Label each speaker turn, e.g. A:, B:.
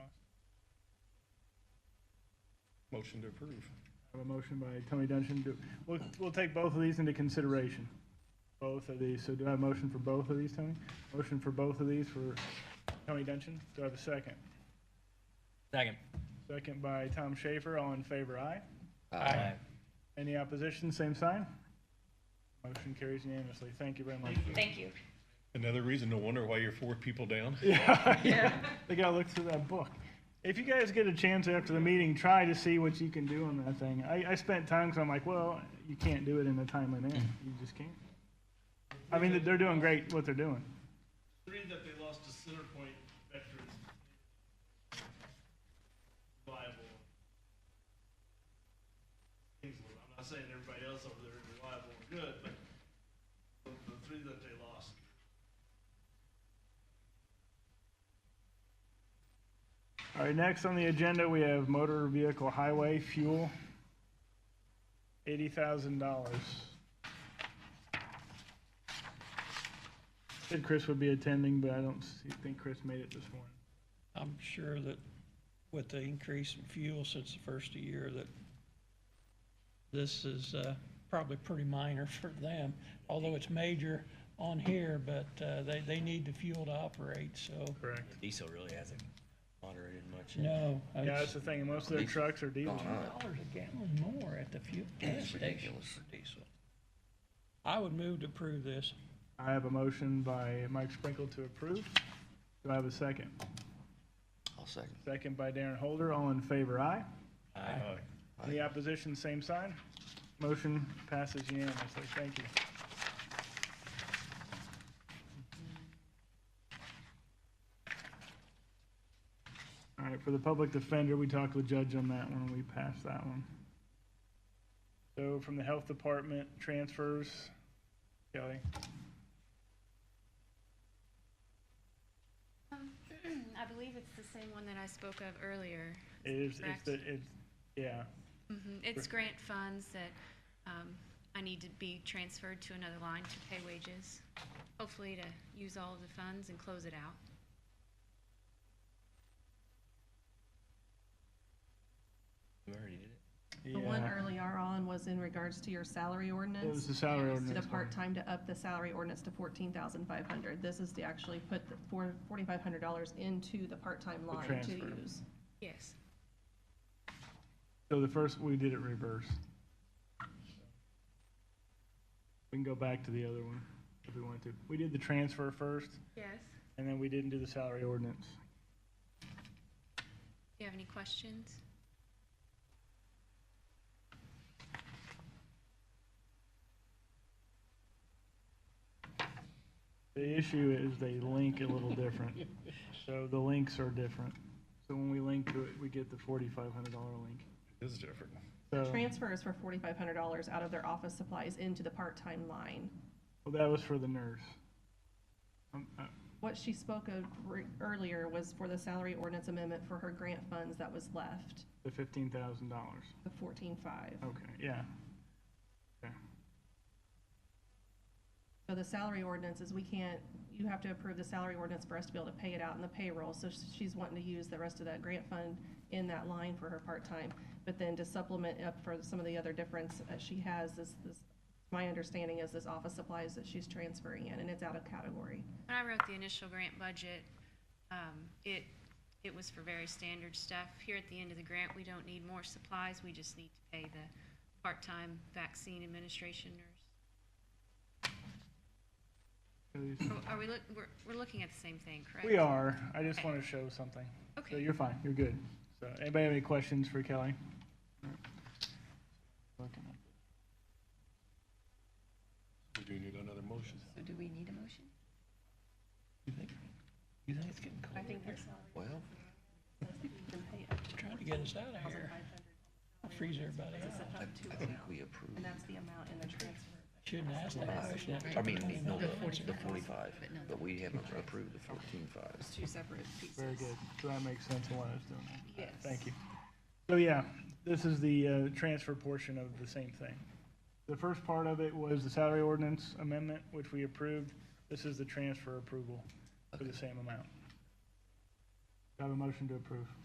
A: motion to approve.
B: I have a motion by Tony Dungeon. Do- We'll, we'll take both of these into consideration. Both of these. So do I have a motion for both of these, Tony? Motion for both of these for Tony Dungeon. Do I have a second?
C: Second.
B: Second by Tom Schaefer. All in favor, aye.
C: Aye.
B: Any opposition, same sign? Motion carries unanimously. Thank you very much.
D: Thank you.
A: Another reason to wonder why you're four people down.
B: They gotta look through that book. If you guys get a chance after the meeting, try to see what you can do on that thing. I, I spent time, because I'm like, well, you can't do it in a timely manner. You just can't. I mean, they're doing great what they're doing.
E: Three that they lost to center point veterans. Reliable. Kingsland. I'm not saying everybody else over there is reliable and good, but the, the three that they lost.
B: All right, next on the agenda, we have motor vehicle highway fuel. Eighty thousand dollars. Said Chris would be attending, but I don't see- think Chris made it this morning.
F: I'm sure that with the increase in fuel since the first of the year, that this is uh, probably pretty minor for them, although it's major on here, but uh, they, they need the fuel to operate, so,
B: Correct.
C: Diesel really hasn't moderated much.
F: no.
B: Yeah, that's
F: it's
B: the thing, most of their trucks are diesel.
F: Dollars a gallon more at the fuel gas station for diesel. I would move to approve this.
B: I have a motion by Mike Sprinkle to approve. Do I have a second?
G: I'll second.
B: Second by Darren Holder, all in favor, aye.
C: Aye.
B: Any opposition, same sign. Motion passes unanimously, thank you. All right, for the public defender, we talked with Judge on that one, we passed that one. So from the Health Department, transfers, Kelly,
H: I believe it's the same one that I spoke of earlier.
B: it is, it's,
H: Correct.
B: the it's, yeah,
H: Mhm. It's grant funds that um, I need to be transferred to another line to pay wages, hopefully to use all of the funds and close it out.
C: We already did it.
B: yeah.
I: The one earlier on was in regards to your salary ordinance.
B: It was the salary
I: To the
B: ordinance. one.
I: part-time to up the salary ordinance to fourteen thousand five hundred. This is to actually put the four, forty-five hundred dollars into the part-time line to
B: transfer.
I: use.
H: Yes.
B: So the first, we did it reverse. We can go back to the other one if we want to. We did the transfer first,
H: Yes.
B: and then we didn't do the salary ordinance.
H: Do you have any questions?
B: The issue is they link a little different, so the links are different. So when we link to it, we get the forty-five hundred dollar link.
A: It is different.
I: The
B: So,
I: transfer is for forty-five hundred dollars out of their office supplies into the part-time line.
B: well, that was for the nurse. Um, uh,
I: What she spoke of re- earlier was for the salary ordinance amendment for her grant funds that was left,
B: the fifteen thousand dollars.
I: the fourteen-five.
B: Okay, yeah. Okay.
I: So the salary ordinance is we can't, you have to approve the salary ordinance for us to be able to pay it out in the payroll. So she's wanting to use the rest of that grant fund in that line for her part-time. But then to supplement up for some of the other difference that she has, this, this, my understanding is this office supplies that she's transferring in, and it's out of category.
H: When I wrote the initial grant budget, um, it, it was for very standard stuff. Here at the end of the grant, we don't need more supplies, we just need to pay the part-time vaccine administration nurse.
B: So these-
H: Oh, Are are we, look- we're, we're looking at the same thing, correct?
B: We are. I just want to show something. So
H: Okay.
B: you're fine. You're good. So anybody have any questions for Kelly?
A: We do need another motion.
D: So do we need a motion?
F: You think you think it's getting cold?
I: I think that's
G: Well,
F: Just trying to get us out of here. Freeze everybody out.
G: I, I think we approve.
I: And that's the amount in the transfer.
F: Shouldn't ask that question. after
G: I mean,
F: twenty
G: no, the
F: minutes.
G: the forty-five, but we haven't approved the fourteen-five.
D: Two separate pieces.
B: Very good. So that makes sense of why I was doing that.
D: Yes.
B: Thank you. So yeah, this is the uh, transfer portion of the same thing. The first part of it was the salary ordinance amendment, which we approved. This is the transfer approval for the same amount. Do I have a motion to approve?